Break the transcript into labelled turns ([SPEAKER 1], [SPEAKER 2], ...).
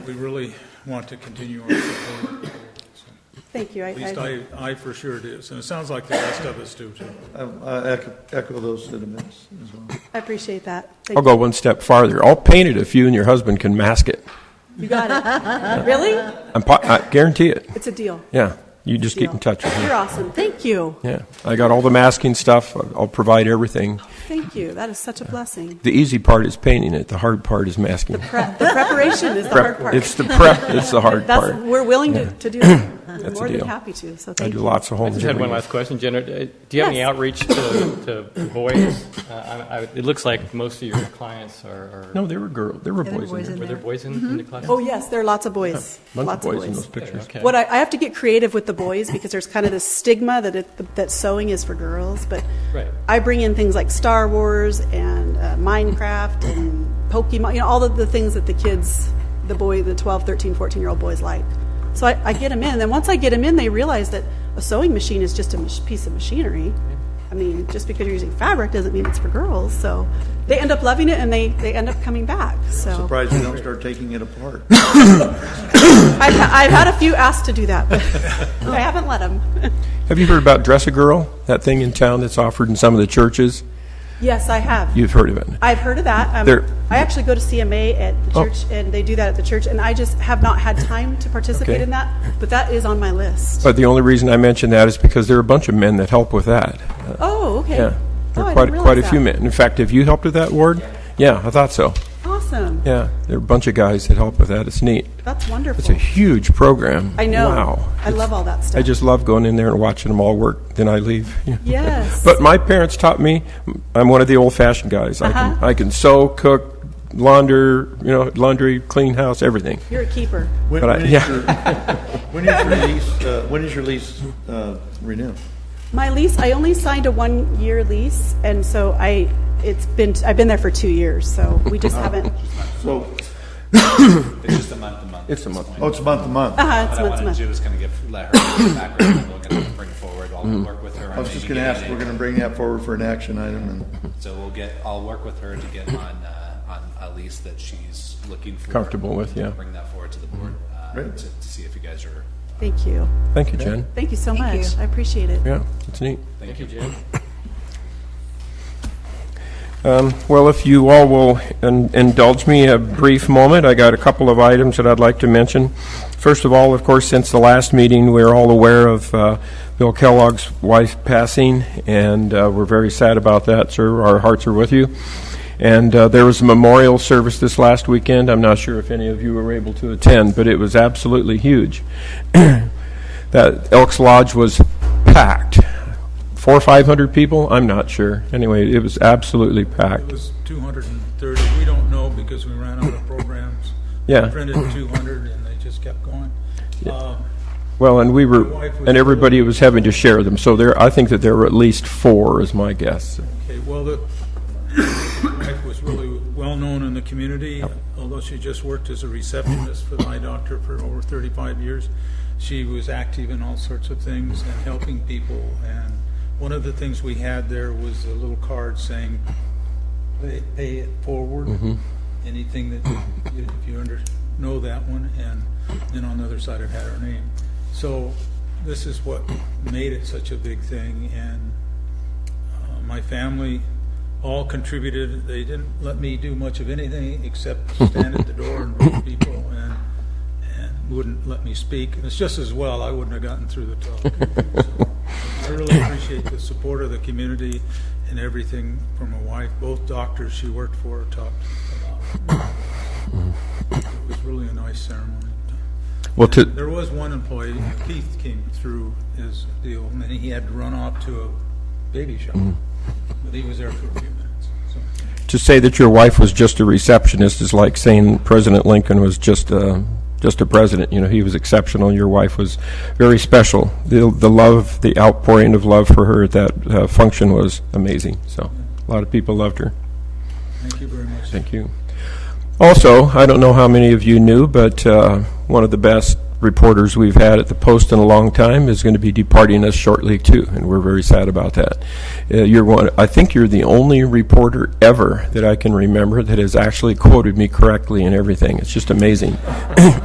[SPEAKER 1] We really want to continue our support. So,
[SPEAKER 2] Thank you. I-
[SPEAKER 1] At least
[SPEAKER 2] I-
[SPEAKER 1] I, I for sure do. And it sounds like the rest of us do too.
[SPEAKER 3] I- I echo- echo those sentiments as well.
[SPEAKER 2] I appreciate that. Thank
[SPEAKER 4] I'll go one step farther. I'll paint it if you and your husband can mask it.
[SPEAKER 2] You You got it. Really?
[SPEAKER 4] I'm po- I guarantee it.
[SPEAKER 2] It's a deal.
[SPEAKER 4] Yeah. You just keep in touch with me.
[SPEAKER 2] You're awesome. Thank you.
[SPEAKER 4] Yeah. I got all the masking stuff. I'll- I'll provide everything.
[SPEAKER 2] Thank you. That is such a blessing.
[SPEAKER 4] The easy part is painting it. The hard part is masking.
[SPEAKER 2] Pre- The preparation is the hard
[SPEAKER 4] Prep-
[SPEAKER 2] part.
[SPEAKER 4] It's the prep. It's the hard
[SPEAKER 2] That's,
[SPEAKER 4] part.
[SPEAKER 2] we're willing to to do that. We're
[SPEAKER 4] That's a
[SPEAKER 2] More than
[SPEAKER 4] deal.
[SPEAKER 2] happy to, so
[SPEAKER 4] I
[SPEAKER 2] thank
[SPEAKER 4] do
[SPEAKER 2] you.
[SPEAKER 4] lots of
[SPEAKER 5] I
[SPEAKER 4] homes.
[SPEAKER 5] just had
[SPEAKER 4] every
[SPEAKER 5] one
[SPEAKER 4] day.
[SPEAKER 5] last question, Jenna. Uh, Do you have any
[SPEAKER 2] Yes.
[SPEAKER 5] outreach to to boys? Uh, I- I- It looks like most of your clients are, are-
[SPEAKER 4] No, there were girls. There were
[SPEAKER 6] there were
[SPEAKER 4] boys in
[SPEAKER 6] boys
[SPEAKER 4] there.
[SPEAKER 6] in
[SPEAKER 5] were there
[SPEAKER 6] there.
[SPEAKER 5] boys in in the class?
[SPEAKER 2] Oh, yes, there are lots of boys.
[SPEAKER 4] Bunch
[SPEAKER 2] Lots
[SPEAKER 4] of
[SPEAKER 2] of
[SPEAKER 4] boys in those
[SPEAKER 2] boys.
[SPEAKER 4] pictures.
[SPEAKER 5] Okay.
[SPEAKER 2] What I, I have to get creative with the boys because there's kind of this stigma that it, that sewing is for girls, but
[SPEAKER 5] Right.
[SPEAKER 2] I bring in things like Star Wars and uh, Minecraft and Pokemon, you know, all of the things that the kids, the boy, the 12, 13, 14 year old boys like. So I, I get them in. And then once I get them in, they realize that a sewing machine is just a mach- piece of machinery. I mean, just because you're using fabric doesn't mean it's for girls. So they end up loving it and they, they end up coming back. So
[SPEAKER 3] Surprised you don't start taking it apart.
[SPEAKER 2] I've, ha- I've had a few asked to do that, but I haven't let them.
[SPEAKER 4] Have you heard about Dress a Girl? That thing in town that's offered in some of the churches?
[SPEAKER 2] yes, I have.
[SPEAKER 4] You've heard of it.
[SPEAKER 2] I've heard of that.
[SPEAKER 4] There-
[SPEAKER 2] Um, I actually go to CMA at the
[SPEAKER 4] Oh.
[SPEAKER 2] church, and they do that at the church, and I just have not had time to participate
[SPEAKER 4] Okay.
[SPEAKER 2] in that, but that is on my list.
[SPEAKER 4] But the only reason I mention that is because there are a bunch of men that help with that. Uh,
[SPEAKER 2] Oh, okay.
[SPEAKER 4] Yeah. There
[SPEAKER 2] Oh,
[SPEAKER 4] are
[SPEAKER 2] I
[SPEAKER 4] quite,
[SPEAKER 2] didn't
[SPEAKER 4] quite a
[SPEAKER 2] realize
[SPEAKER 4] few
[SPEAKER 2] that.
[SPEAKER 4] men. In fact, have you helped with that, Ward? Yeah, I thought so.
[SPEAKER 2] Awesome.
[SPEAKER 4] Yeah, there are a bunch of guys that help with that. It's neat.
[SPEAKER 2] That's
[SPEAKER 4] It's a
[SPEAKER 2] wonderful.
[SPEAKER 4] huge program.
[SPEAKER 2] I know.
[SPEAKER 4] Wow.
[SPEAKER 2] I love all that stuff.
[SPEAKER 4] I just love going in there and watching them all work, then I leave.
[SPEAKER 2] Yes.
[SPEAKER 4] But my parents taught me, I'm one of the old-fashioned guys. I
[SPEAKER 2] Uh-huh.
[SPEAKER 4] can, I can sew, cook, launder, you know, laundry, clean house, everything.
[SPEAKER 2] You're a keeper.
[SPEAKER 3] When
[SPEAKER 4] But I-
[SPEAKER 3] when is
[SPEAKER 4] yeah.
[SPEAKER 3] your, when is your lease, uh, when is your lease uh, renew?
[SPEAKER 2] My lease, I only signed a one-year lease, and so I, it's been, I've been there for two years, so we
[SPEAKER 7] Oh.
[SPEAKER 2] just haven't,
[SPEAKER 3] So,
[SPEAKER 7] It's just a month to month.
[SPEAKER 4] It's a month.
[SPEAKER 3] oh, it's month to month. I
[SPEAKER 2] uh-huh, it's
[SPEAKER 7] What
[SPEAKER 2] month to
[SPEAKER 7] I wanted
[SPEAKER 2] month.
[SPEAKER 7] to do was kind of give, let her background, and look and bring forward,
[SPEAKER 4] Mm-hmm.
[SPEAKER 7] I'll work with her. on
[SPEAKER 3] was just
[SPEAKER 7] maybe
[SPEAKER 3] going to ask,
[SPEAKER 7] getting
[SPEAKER 3] we're
[SPEAKER 7] it.
[SPEAKER 3] going to bring that forward for an action item, and
[SPEAKER 7] So we'll get, I'll work with her to get on, uh, on a lease that she's looking for.
[SPEAKER 4] Comfortable with, yeah.
[SPEAKER 7] Bring that forward to the board, uh, to,
[SPEAKER 3] Great.
[SPEAKER 7] to see if you guys are,
[SPEAKER 2] Thank you.
[SPEAKER 4] Thank you, Jen.
[SPEAKER 2] Thank you so
[SPEAKER 6] Thank
[SPEAKER 2] much.
[SPEAKER 6] you.
[SPEAKER 2] I appreciate it.
[SPEAKER 4] Yeah, it's neat.
[SPEAKER 5] Thank you, Jim.
[SPEAKER 4] Um, Well, if you all will in- indulge me a brief moment, I got a couple of items that I'd like to mention. First of all, of course, since the last meeting, we're all aware of uh, Bill Kellogg's wife passing, and uh, we're very sad about that, sir. Our hearts are with you. And uh, there was a memorial service this last weekend. I'm not sure if any of you were able to attend, but it was absolutely huge. That Elks Lodge was packed. Four or 500 people? I'm not sure. Anyway, it was absolutely packed.
[SPEAKER 1] It was 230. We don't know because we ran out of programs.
[SPEAKER 4] Yeah.
[SPEAKER 1] Printed 200 and they just kept going. Um,
[SPEAKER 4] Well, and we
[SPEAKER 1] My
[SPEAKER 4] were,
[SPEAKER 1] wife was-
[SPEAKER 4] and everybody was having to share them, so there, I think that there were at least four, is my guess.
[SPEAKER 1] Okay, well, the wife was really well-known in the community, although she just worked as a receptionist for my doctor for over 35 years. She was active in all sorts of things and helping people, and one of the things we had there was a little card saying, "Pay- pay it forward, anything that, you- if you under, know that one, and then on the other side it had her name. So this is what made it such a big thing, and uh, My family all contributed. They didn't let me do much of anything except stand at the door and greet people and, and wouldn't let me speak. And it's just as well, I wouldn't have gotten through the talk. So, I really appreciate the support of the community and everything from my wife. Both doctors she worked for talked about. it. It was really a nice ceremony.
[SPEAKER 4] Well, to,
[SPEAKER 1] There was one employee, Keith came through his deal, and then he had to run off to a baby shop.
[SPEAKER 4] Mm-hmm.
[SPEAKER 1] But he was there for a few minutes, so.
[SPEAKER 4] to say that your wife was just a receptionist is like saying President Lincoln was just a, just a president. You know, he was exceptional. Your wife was very special. The, the love, the outpouring of love for her at that uh, function was amazing. So, a lot of people loved her.
[SPEAKER 1] Thank you very much.
[SPEAKER 4] Thank you. Also, I don't know how many of you knew, but uh, one of the best reporters we've had at the Post in a long time is going to be departing us shortly too, and we're very sad about that. Uh, You're one, I think you're the only reporter ever that I can remember that has actually quoted me correctly and everything. It's just amazing.